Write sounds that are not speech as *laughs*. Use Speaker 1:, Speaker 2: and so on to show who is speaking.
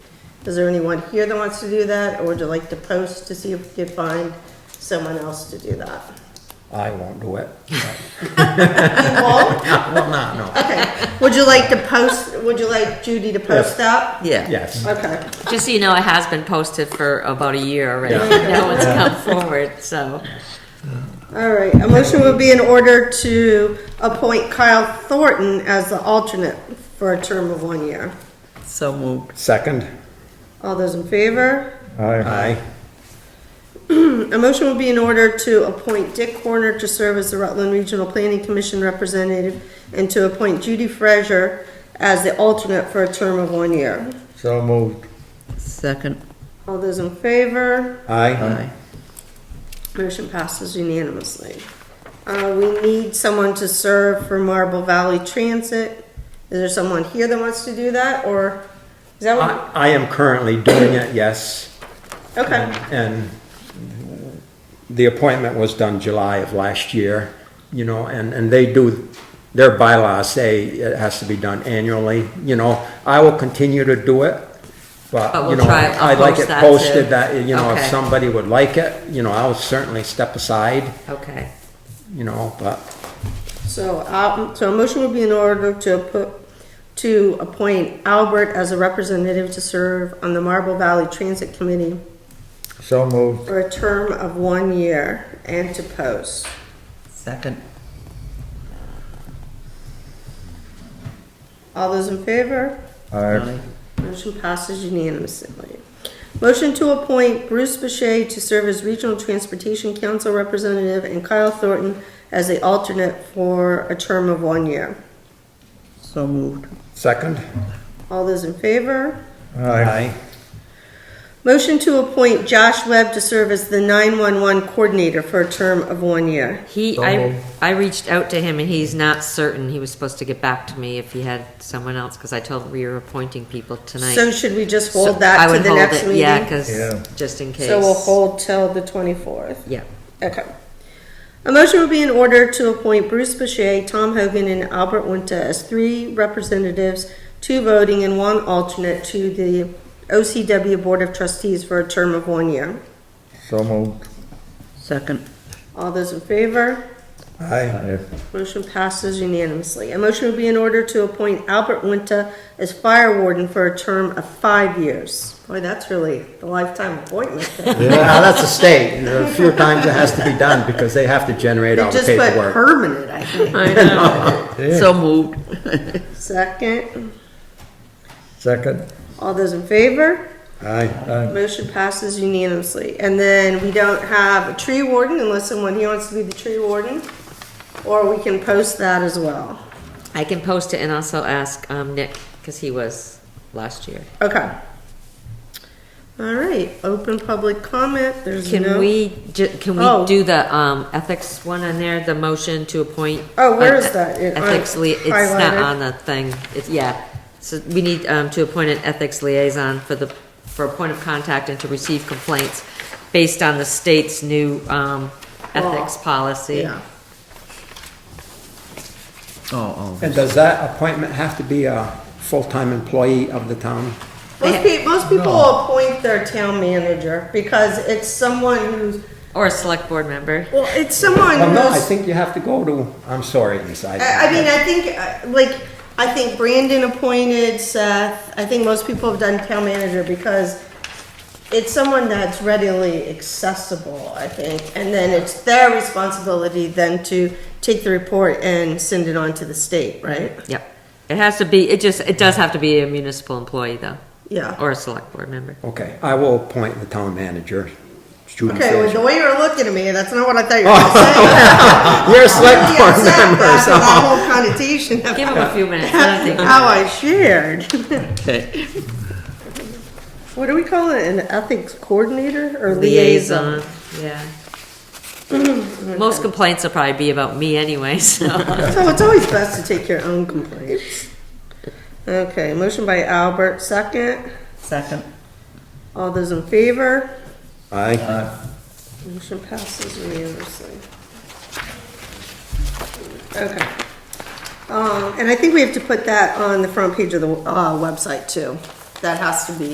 Speaker 1: Is there anyone here that wants to do that, or would you like to post to see if we could find someone else to do that?
Speaker 2: I won't do
Speaker 3: *laughs*
Speaker 2: it.
Speaker 1: Well,
Speaker 2: I will not, no.
Speaker 1: Okay, would you like to post, would you like Judy to post that?
Speaker 3: Yeah,
Speaker 2: Yes.
Speaker 1: Okay,
Speaker 3: just so you know, it has been posted for about a year already.
Speaker 2: Yeah.
Speaker 3: No one's come forward, so.
Speaker 1: all right, a motion would be in order to appoint Kyle Thornton as the alternate for a term of one year.
Speaker 3: So moved.
Speaker 2: Second?
Speaker 1: All those in favor?
Speaker 2: Aye.
Speaker 1: A motion will be in order to appoint Dick Horner to serve as the Rutland Regional Planning Commission representative and to appoint Judy Fraser as the alternate for a term of one year.
Speaker 2: So moved.
Speaker 3: Second.
Speaker 1: All those in favor?
Speaker 2: Aye.
Speaker 1: Motion passes unanimously. Uh, we need someone to serve for Marble Valley Transit. Is there someone here that wants to do that, or is that what?
Speaker 2: I, I am currently doing it, yes.
Speaker 1: Okay,
Speaker 2: And and the appointment was done July of last year, you know, and, and they do, their bylaws say it has to be done annually, you know. I will continue to do it,
Speaker 3: But
Speaker 2: but, you
Speaker 3: we'll
Speaker 2: know,
Speaker 3: try- I'll
Speaker 2: I'd like
Speaker 3: post
Speaker 2: it
Speaker 3: that too.
Speaker 2: posted that, you know, if
Speaker 3: Okay.
Speaker 2: somebody would like it, you know, I'll certainly step aside,
Speaker 3: Okay.
Speaker 2: you know, but
Speaker 1: so, uh, so a motion will be in order to put, to appoint Albert as a representative to serve on the Marble Valley Transit Committee
Speaker 4: So moved.
Speaker 1: for a term of one year and to post.
Speaker 3: Second.
Speaker 1: All those in favor?
Speaker 4: Aye.
Speaker 1: Motion passes unanimously. Motion to appoint Bruce Boucher to serve as Regional Transportation Council Representative and Kyle Thornton as the alternate for a term of one year.
Speaker 3: So moved.
Speaker 2: second?
Speaker 1: All those in favor?
Speaker 4: Aye.
Speaker 2: *laughs*
Speaker 1: Motion to appoint Josh Webb to serve as the 911 Coordinator for a term of one year.
Speaker 3: He,
Speaker 4: So
Speaker 3: I,
Speaker 4: moved.
Speaker 3: I reached out to him and he's not certain. He was supposed to get back to me if he had someone else, because I told him we were appointing people tonight.
Speaker 1: So should we just
Speaker 3: So
Speaker 1: hold
Speaker 3: I
Speaker 1: that to
Speaker 3: would
Speaker 1: the
Speaker 3: hold
Speaker 1: next
Speaker 3: it, Yeah,
Speaker 1: meeting?
Speaker 4: Yeah.
Speaker 3: because, just in case.
Speaker 1: So we'll hold till the 24th.
Speaker 3: Yeah.
Speaker 1: Okay. A motion will be in order to appoint Bruce Boucher, Tom Hogan, and Albert Winter as three representatives, two voting and one alternate to the OCW Board of Trustees for a term of one year.
Speaker 4: So moved.
Speaker 3: Second.
Speaker 1: All those in favor?
Speaker 2: Aye.
Speaker 4: Aye.
Speaker 1: Motion passes unanimously. A motion will be in order to appoint Albert Winter as fire warden for a term of five years. Boy, that's really a lifetime appointment. They
Speaker 2: Now, that's a state, a few times it has to be done because they have to generate all the
Speaker 1: just put
Speaker 2: paperwork.
Speaker 1: permanent, I think.
Speaker 3: I know. So moved.
Speaker 1: Second,
Speaker 4: Second.
Speaker 1: all those in favor?
Speaker 2: Aye.
Speaker 4: Aye.
Speaker 1: Motion passes unanimously. And then we don't have a tree warden unless someone here wants to be the tree warden. Or we can post that as well.
Speaker 3: I can post it and also ask um, Nick, because he was last year.
Speaker 1: Okay. All right, open public comment. There's
Speaker 3: Can
Speaker 1: no.
Speaker 3: we, ju- can
Speaker 1: Mm-hmm. Oh.
Speaker 3: we do the um, ethics one on there, the motion to appoint?
Speaker 1: Oh, where
Speaker 3: an
Speaker 1: is that? It- I-
Speaker 3: Ethics lia, it's not
Speaker 1: highlighted.
Speaker 3: on the thing, it's, yeah. So we need um, to appoint an ethics liaison for the, for a point of contact and to receive complaints based on the state's new um, ethics policy.
Speaker 1: Yeah.
Speaker 2: And does that appointment have to be a full-time employee of the town?
Speaker 1: Most people, most people appoint their town manager because it's someone who's,
Speaker 3: Or a select board member.
Speaker 1: well, it's someone
Speaker 2: Well, no, I
Speaker 1: who's.
Speaker 2: think you have to go to, I'm sorry, Lisa.
Speaker 1: I, I mean, I think, uh, like, I think Brandon appointed Seth. I think most people have done town manager because it's someone that's readily accessible, I think. And then it's their responsibility then to take the report and send it on to the state, right?
Speaker 3: Yep. It has to be, it just, it does have to be a municipal employee though,
Speaker 1: Yeah.
Speaker 3: or a select board member.
Speaker 2: Okay, I will appoint the town manager. Judy
Speaker 1: Okay, well, the
Speaker 2: Fraser.
Speaker 1: way you were looking at me, that's not what I thought you were gonna say.
Speaker 2: You're a
Speaker 1: I'm
Speaker 2: select
Speaker 1: really
Speaker 2: board *laughs*
Speaker 1: upset
Speaker 2: member,
Speaker 1: after that
Speaker 2: so.
Speaker 1: whole connotation of
Speaker 3: Give him a few minutes. let him think.
Speaker 1: *laughs* how I shared. What do we call it, an ethics coordinator or liaison?
Speaker 3: liaison. Yeah. Most complaints will probably be about me anyway, so.
Speaker 1: So it's always best to take your own complaints. Okay, motion by Albert, second.
Speaker 3: Second.
Speaker 1: All those in favor?
Speaker 2: Aye.
Speaker 4: Aye.
Speaker 1: Motion passes unanimously. Okay. Um, and I think we have to put that on the front page of the, uh, website too. That has to be